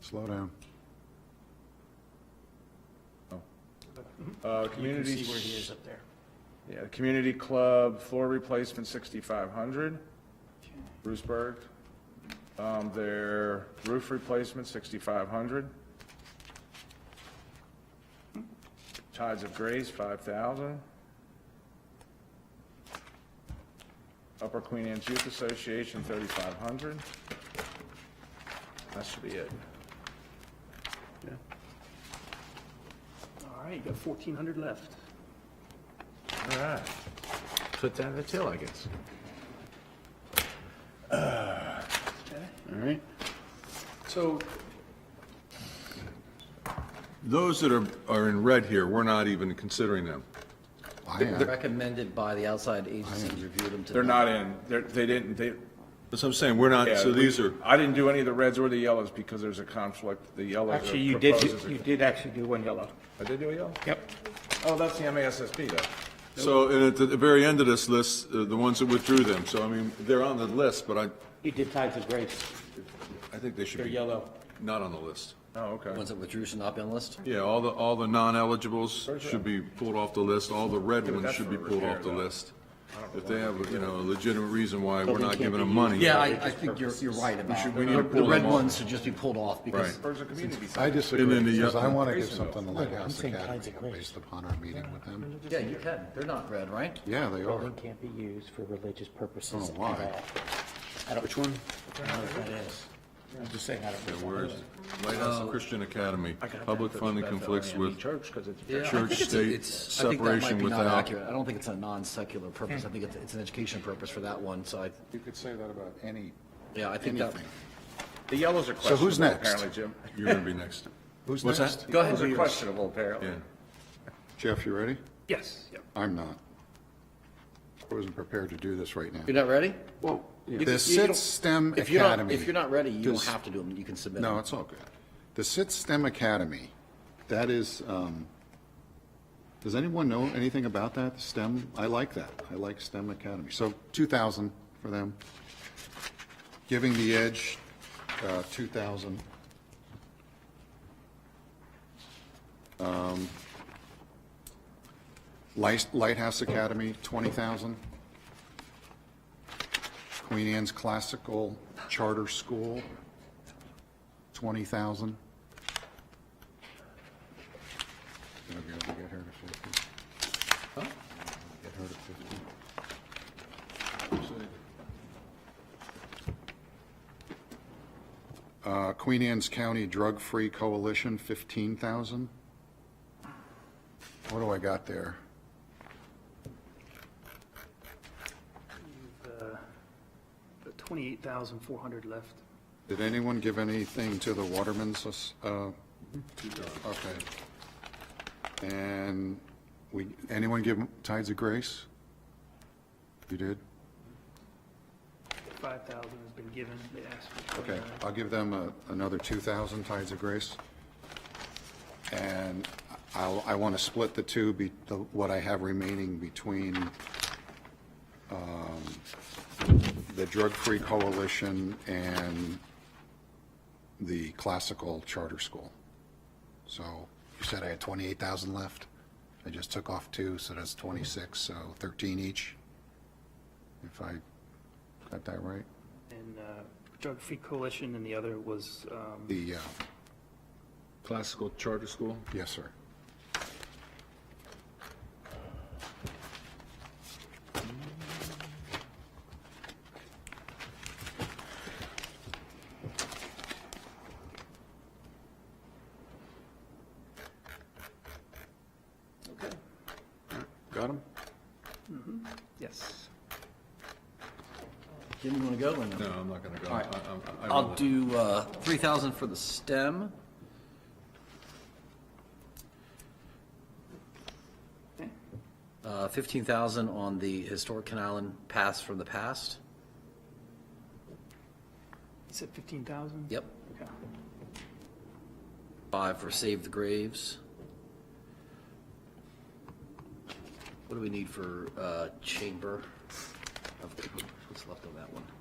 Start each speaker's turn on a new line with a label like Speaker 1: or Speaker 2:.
Speaker 1: slow down.
Speaker 2: Uh,
Speaker 3: You can
Speaker 2: community,
Speaker 3: see where he is up there.
Speaker 2: yeah, community club floor replacement sixty-five hundred, Bruceburg. Um, their roof replacement sixty-five hundred. Tides of Grace five thousand. Upper Queen Anne's Youth Association thirty-five hundred. That should be it.
Speaker 3: All right, you got fourteen hundred left.
Speaker 4: All right. Put that in the till, I guess.
Speaker 3: Okay.
Speaker 1: All right?
Speaker 3: So
Speaker 5: Those that are, are in red here, we're not even considering them.
Speaker 1: I am.
Speaker 6: Recommended by the outside agency, reviewed them to.
Speaker 2: They're not in, they're, they didn't, they,
Speaker 5: That's what I'm saying, we're not,
Speaker 2: Yeah,
Speaker 5: so
Speaker 2: we-
Speaker 5: these are,
Speaker 2: I didn't do any of the reds or the yellows because there's a conflict. The yellows are
Speaker 7: Actually, you did,
Speaker 2: proposed as a-
Speaker 7: you did actually do one yellow.
Speaker 2: I did do a yellow?
Speaker 7: Yep.
Speaker 2: Oh, that's the MASSP though.
Speaker 5: so, and at the the very end of this list, uh, the ones that withdrew them, so I mean, they're on the list, but I,
Speaker 7: You did tides of grace.
Speaker 5: I think they should
Speaker 7: They're
Speaker 5: be
Speaker 7: yellow.
Speaker 5: not on the list.
Speaker 2: Oh, okay.
Speaker 6: Ones that withdrew should not be on the list?
Speaker 5: Yeah, all the, all the non-eligibles should be pulled off the list, all the red ones
Speaker 2: that's
Speaker 5: should
Speaker 2: for
Speaker 5: be pulled
Speaker 2: repair,
Speaker 5: off the
Speaker 2: though.
Speaker 5: list. If they have, you know, a legitimate reason why we're not giving them money.
Speaker 6: Yeah, I, I think you're, you're right about
Speaker 5: should-
Speaker 6: it.
Speaker 5: we need to
Speaker 6: The
Speaker 5: pull
Speaker 6: the red
Speaker 5: them off.
Speaker 6: ones should just be pulled off because
Speaker 5: Right.
Speaker 2: There's a community center.
Speaker 1: I disagree,
Speaker 5: And then the-
Speaker 1: because I want to give
Speaker 2: Grayson
Speaker 1: something to Lighthouse
Speaker 7: saying tides
Speaker 1: Academy
Speaker 7: of grace.
Speaker 1: based upon our meeting with them.
Speaker 6: Yeah, you can. They're not red, right?
Speaker 1: Yeah, they are.
Speaker 7: Building can't be used for religious purposes
Speaker 1: Oh,
Speaker 7: at
Speaker 1: why?
Speaker 7: all.
Speaker 1: Which one?
Speaker 7: I'm just saying, I don't know.
Speaker 5: Where is it? Lighthouse Christian Academy, public funding conflicts with
Speaker 2: Church, because it's.
Speaker 6: Yeah, I
Speaker 5: Church,
Speaker 6: think it's a-
Speaker 5: state,
Speaker 6: it's- I think that might
Speaker 5: separation
Speaker 6: be not
Speaker 5: without-
Speaker 6: accurate. I don't think it's a non-secular purpose. I think it's, it's an education purpose for that one, so I,
Speaker 1: You could say that about any,
Speaker 6: yeah, I think that.
Speaker 1: anything.
Speaker 2: The yellows are
Speaker 1: So who's
Speaker 2: questionable
Speaker 1: next?
Speaker 2: apparently, Jim.
Speaker 5: You're gonna be next.
Speaker 1: Who's
Speaker 5: What's
Speaker 1: next?
Speaker 2: The yellows are questionable apparently.
Speaker 5: Yeah.
Speaker 1: Jeff, you ready?
Speaker 3: Yes, yep.
Speaker 1: I'm not. I wasn't prepared to do this right now.
Speaker 6: You're not ready? You-
Speaker 1: The
Speaker 6: you- you
Speaker 1: Sit
Speaker 6: don't-
Speaker 1: STEM
Speaker 6: If you're not,
Speaker 1: Academy.
Speaker 6: if you're not ready, you don't
Speaker 1: Does-
Speaker 6: have to do them. You can submit
Speaker 1: No,
Speaker 6: them.
Speaker 1: it's all good. The Sit STEM Academy, that is, um, does anyone know anything about that? STEM, I like that. I like STEM Academy. So 2,000 for them. Giving the Edge, uh, 2,000. Um, Light- Lighthouse Academy, 20,000. Queen Anne's Classical Charter School, 20,000. Gonna be able to get her to 50. Get her to 50. Uh, Queen Anne's County Drug Free Coalition, 15,000. What do I got there?
Speaker 3: Twenty-eight thousand four hundred left.
Speaker 1: Did anyone give anything to the Waterman's? uh, Okay. And we, anyone give Tides of Grace? You did?
Speaker 3: Five thousand has been given. They asked for
Speaker 1: Okay,
Speaker 3: 29.
Speaker 1: I'll give them a- another 2,000 Tides of Grace. And I'll, I want to split the two, be- the- what I have remaining between um, the Drug Free Coalition and the Classical Charter School. So you said I had 28,000 left. I just took off two, so that's 26, so 13 each. If I got that right?
Speaker 3: And uh, Drug Free Coalition and the other was, um,
Speaker 1: The, uh,
Speaker 4: Classical charter school?
Speaker 1: Yes, sir. Got him?
Speaker 3: yes.
Speaker 6: Jim, you want to go or no?
Speaker 5: No, I'm not gonna go.
Speaker 6: All right.
Speaker 5: I- I- I- I
Speaker 6: I'll
Speaker 5: will.
Speaker 6: do uh, 3,000 for the STEM.
Speaker 3: eh,
Speaker 6: Uh, 15,000 on the historic Can Island pass from the past.
Speaker 3: You said fifteen thousand?
Speaker 6: Yep.
Speaker 3: Okay.
Speaker 6: Five for Save the Graves. What do we need for uh, Chamber? of What's left on that one?